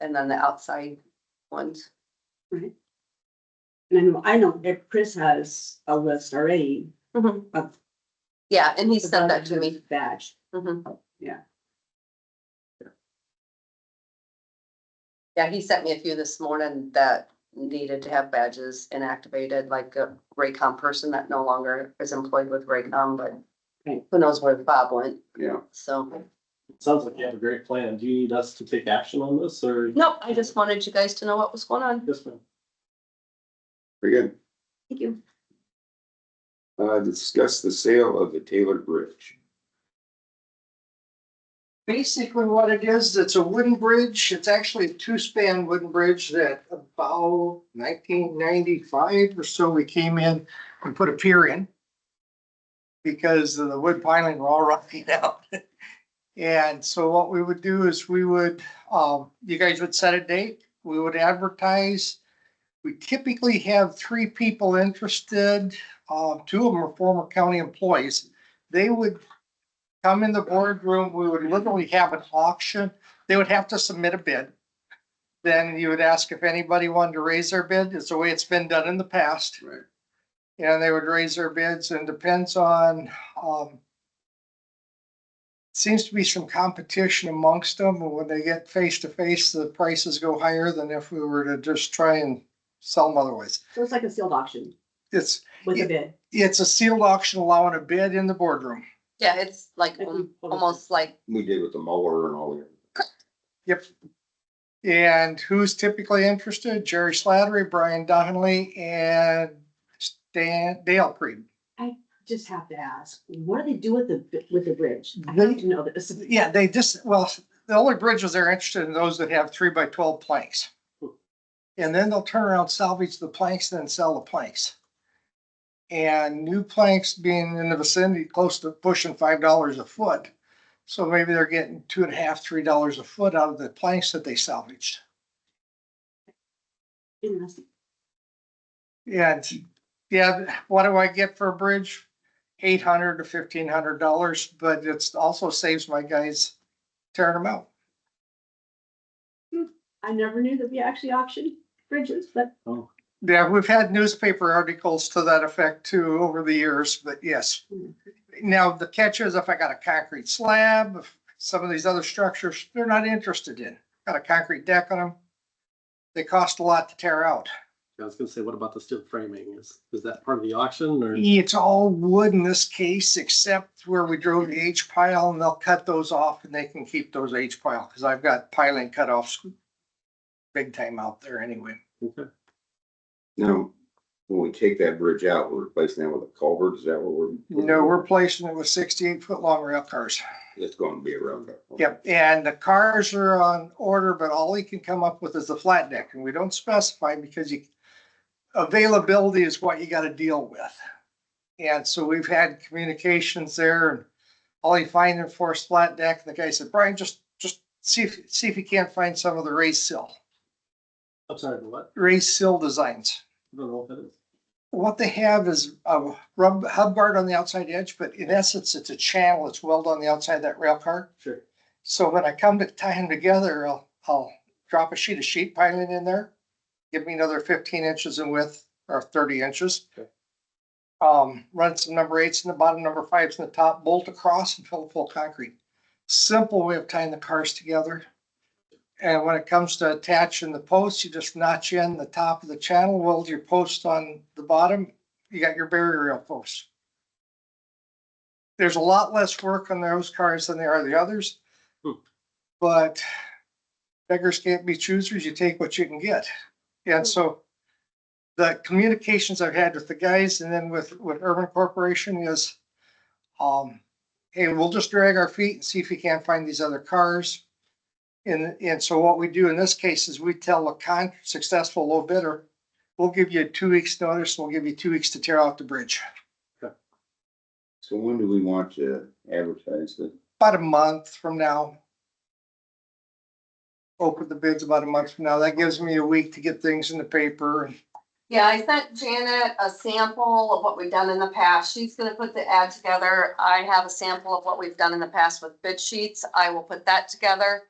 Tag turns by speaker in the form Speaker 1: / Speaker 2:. Speaker 1: and then the outside ones.
Speaker 2: And I know, I know that Chris has a list already. Of-
Speaker 1: Yeah, and he sent that to me.
Speaker 2: Badge.
Speaker 1: Mhm.
Speaker 2: Yeah.
Speaker 1: Yeah, he sent me a few this morning that needed to have badges inactivated, like a Raycom person that no longer is employed with Raycom, but
Speaker 2: Right.
Speaker 1: who knows where Bob went,
Speaker 3: Yeah,
Speaker 1: so.
Speaker 4: Sounds like you have a great plan. Do you need us to take action on this or?
Speaker 1: Nope, I just wanted you guys to know what was going on.
Speaker 4: Yes, ma'am.
Speaker 3: very good.
Speaker 1: Thank you.
Speaker 3: Uh, discuss the sale of the Taylor Bridge.
Speaker 5: Basically what it is, it's a wooden bridge. It's actually a two-span wooden bridge that about nineteen ninety-five or so, we came in and put a pier in. Because of the wood piling were all rotting out. And so what we would do is we would, um, you guys would set a date, we would advertise. We typically have three people interested, uh, two of them are former county employees. They would come in the boardroom, we would literally have an auction. They would have to submit a bid. Then you would ask if anybody wanted to raise their bid. It's the way it's been done in the past.
Speaker 3: Right.
Speaker 5: And they would raise their bids and depends on, um, seems to be some competition amongst them. And when they get face to face, the prices go higher than if we were to just try and sell them otherwise.
Speaker 2: So it's like a sealed auction
Speaker 5: It's,
Speaker 2: with
Speaker 5: Yeah.
Speaker 2: a bid.
Speaker 5: it's a sealed auction allowing a bid in the boardroom.
Speaker 1: Yeah, it's like
Speaker 2: Like
Speaker 1: um,
Speaker 2: we-
Speaker 1: almost like,
Speaker 3: We did with the mower and all that.
Speaker 5: And who's typically interested? Jerry Slattery, Brian Donnelly, and Stan, Dale Creed.
Speaker 2: Just have to ask, what do they do with the, bi- with the bridge? I have to know this.
Speaker 5: Yeah, they just, well, the only bridges they're interested in those that have three by twelve planks. And then they'll turn around, salvage the planks, then sell the planks. And new planks being in the vicinity, close to pushing five dollars a foot. So maybe they're getting two and a half, three dollars a foot out of the planks that they salvaged.
Speaker 2: Interesting.
Speaker 5: Yeah, it's- yeah, what do I get for a bridge? Eight hundred to fifteen hundred dollars, but it's also saves my guys tearing them out.
Speaker 2: I never knew that we actually auctioned bridges, but
Speaker 5: Yeah, we've had newspaper articles to that effect too over the years, but yes. Now, the catch is if I got a concrete slab, if some of these other structures, they're not interested in, got a concrete deck on them. They cost a lot to tear out.
Speaker 4: I was gonna say, what about the steel framing? Is, is that part of the auction or?
Speaker 5: It's all wood in this case, except where we drove the H pile and they'll cut those off and they can keep those H pile, cause I've got piling cutoffs. Big time out there anyway.
Speaker 4: Okay.
Speaker 3: Now, when we take that bridge out, we're replacing that with a culvert, is that what we're?
Speaker 5: No, we're placing it with sixty-eight foot long rail cars.
Speaker 3: It's gonna be around that.
Speaker 5: Yep, and the cars are on order, but all he can come up with is the flat deck and we don't specify because you. Availability is what you gotta deal with. And so we've had communications there and all he find in for is flat deck and the guy said, Brian, just, just see if, see if you can't find some of the raised sill,
Speaker 4: I'm sorry, the what?
Speaker 5: raised sill designs.
Speaker 4: I don't know what that is.
Speaker 5: What they have is a rub, hub guard on the outside edge, but in essence, it's a channel. It's welded on the outside of that rail car.
Speaker 4: Sure.
Speaker 5: So when I come to tie them together, I'll, I'll drop a sheet of sheet piling in there. Give me another fifteen inches in width or thirty inches.
Speaker 4: Okay.
Speaker 5: Um, run some number eights in the bottom, number fives in the top, bolt across and fill full concrete. Simple way of tying the cars together. And when it comes to attaching the posts, you just notch in the top of the channel, weld your post on the bottom. You got your barrier rail post. There's a lot less work on those cars than there are the others. But beggars can't be choosers. You take what you can get. And so the communications I've had with the guys and then with, with Urban Corporation is, um, hey, we'll just drag our feet and see if we can't find these other cars. And, and so what we do in this case is we tell a con, successful low bidder, we'll give you two weeks notice, we'll give you two weeks to tear out the bridge.
Speaker 3: So when do we want to advertise it?
Speaker 5: about a month from now. Open the bids about a month from now. That gives me a week to get things in the paper.
Speaker 1: yeah, I sent Janet a sample of what we've done in the past. She's gonna put the ad together. I have a sample of what we've done in the past with bid sheets. I will put that together.